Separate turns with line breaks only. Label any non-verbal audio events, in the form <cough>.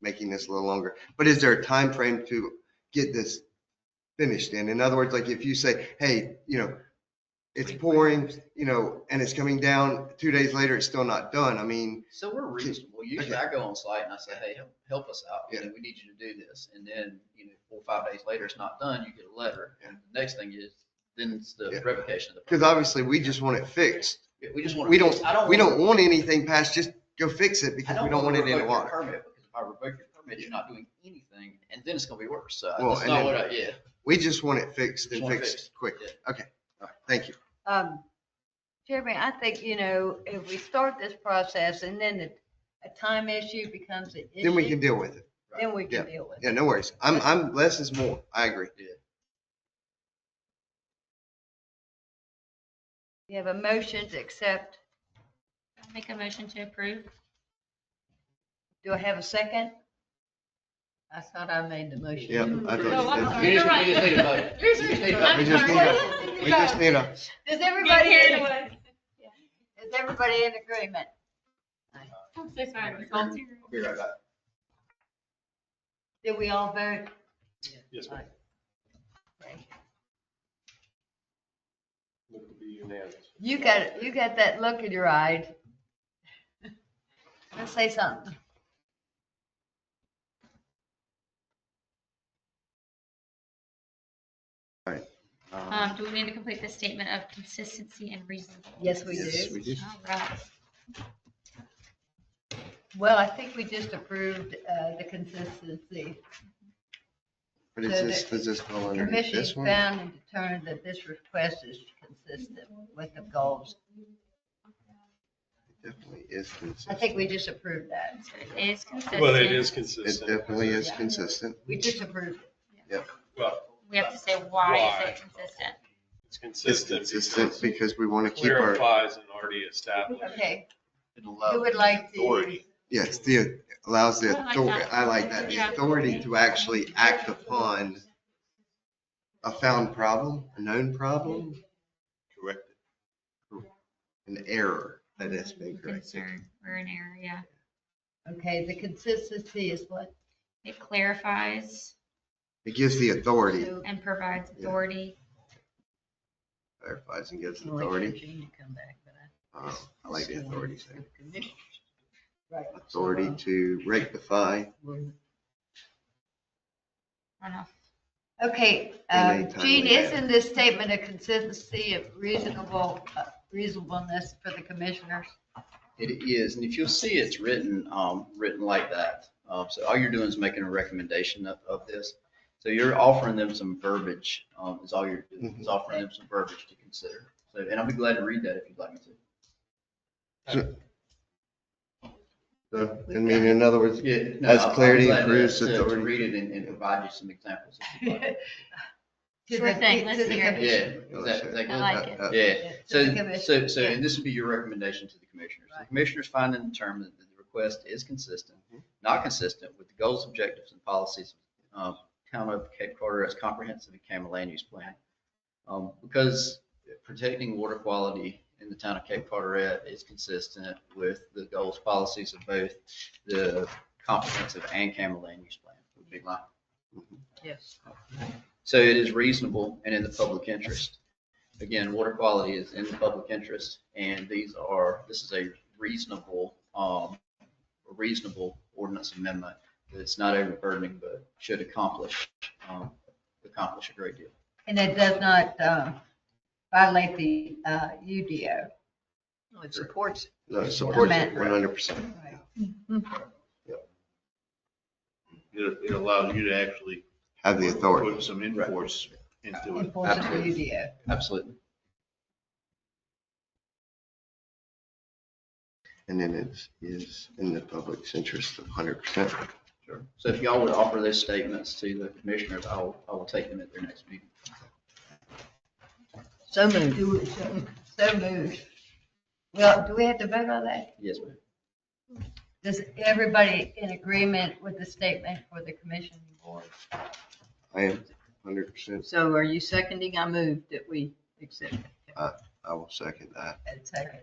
making this a little longer. But is there a time frame to get this finished in? In other words, like if you say, hey, you know, it's pouring, you know, and it's coming down, two days later, it's still not done. I mean,
So we're reasonable. Usually I go on site and I say, hey, help, help us out. You know, we need you to do this. And then, you know, four, or five days later, it's not done, you get a letter. And the next thing is, then it's
Yeah.
the revocation of the.
because obviously we just want it fixed.
We just want.
We don't,
I
we
want-
don't want anything past, just go fix it
I
because we don't
wanna
want it in the
revoke your
water.
Permit, because if I revoke your permit, you're not doing anything, and then it's gonna be worse, so
Well,
that's
and
not
then-
what I, yeah.
We just want it fixed
Just
and
want it
fixed
fixed.
quick. Okay, all right, thank you.
Um, Jeremy, I think, you know, if we start this process and then the, a time issue becomes an issue.
Then we can deal with it.
Then we can
yeah,
deal with it.
Yeah, no worries. I'm, I'm, less is more. I agree.
We have a motion to accept.
I'll Make a motion to approve.
Do I have a second? I thought I made the motion.
Yeah, I thought you
Oh, I'm
did.
sorry.
You just-
You're right.
you just need to vote.
<laughs>
just need
You're
to-
I'm
We just
sorry.
need a- We just
<laughs>
need a,
Does
Get
everybody,
carried
is
away.
everybody in agreement?
I'm so sorry. Ms. Walter.
I'll be right back.
Did we all vote?
Yes, ma'am. Look to be unanimous.
You got, you got that look in your eye. Let's say something.
um,
Um, do we need to complete the statement of consistency and reason?
Yes, we Uh,
yes,
do.
we do.
All right.
Well, I think we just approved, uh, the consistency.
But is
So
this,
the
does this fall under
Commission
this one?
found and determined that this request is consistent with the goals.
Definitely is
I
consistent.
think we disapproved that.
So it is consistent.
Well, it is
It
consistent.
definitely is
Yeah.
consistent.
We disapproved.
Well,
We have to say why is
Why?
it consistent?
it's
It's
consistent.
consistent
because it
because we want to keep our,
Clarifies an already established.
Okay,
Didn't allow-
who would like to?
Authority.
yes, the, allows the
I like
authority,
that.
I like that, the
Yeah.
authority to actually act upon a found problem, a known problem, correct it. An error that has been corrected.
Concern or an error, yeah.
Okay, the consistency is what?
It clarifies
It gives the authority,
and provides
Yeah.
authority.
clarifies and gives
I'll wait for
authority.
Gene to come back, but I-
Uh, I like the authority there.
<laughs> Right.
Authority to rectify.
I don't know.
Okay,
And
um,
they
Gene,
timely
isn't this statement a consistency of reasonable, uh, reasonableness for the commissioners?
It is, and if you'll see, it's written, um, written like that. Um, so all you're doing is making a recommendation of, of this. So you're offering them some verbiage, um, is all you're
Mm-hmm.
doing, is offering them some verbiage to consider. So, and I'll be glad to read that if you'd like me to.
So, I mean, in other words, uh,
Yeah.
As clarity improves
improves To
authority.
read it and, and provide you some examples. if
<laughs>
you'd like.
To
Sure
the-
thing,
to
let's
the
hear it.
Yeah,
commission-
is that- is that
I
good?
like it.
Uh, uh,
Yeah,
to the
so,
commission.
so, so,
yeah.
and this would be your recommendation to the commissioners. The
Right.
commissioners find and determine that the request is consistent, not consistent with the goals, objectives, and policies of town of Cape Carter as comprehensive and Cameron land use plan. Um, because protecting water quality in the town of Cape Carteret is consistent with the goals, policies of both the comprehensive and Cameron land use plan, would be my
Yes.
so it is reasonable and in the public interest. Again, water quality is in the public interest and these are, this is a reasonable, um, reasonable ordinance amendment. It's not overburdening, but should accomplish, um, accomplish a great deal.
And it does not uh, violate the uh, UDO. It supports.
No, support
Amendment.
one hundred percent.
It, it allows you to actually.
Have the authority.
Put some enforce into it.
Enforce the
Absolutely.
UDO.
Absolutely.
And then it is in the public's interest of hundred percent.
Sure. So if y'all would offer those statements to the commissioners, I'll, I will take them at their next meeting.
So moved. So moved. Well, do we have to vote on that?
Yes, ma'am.
Does everybody in agreement with the statement for the commission board?
I am hundred percent.
So are you seconding? I moved that we accept it.
I will second that.
And second.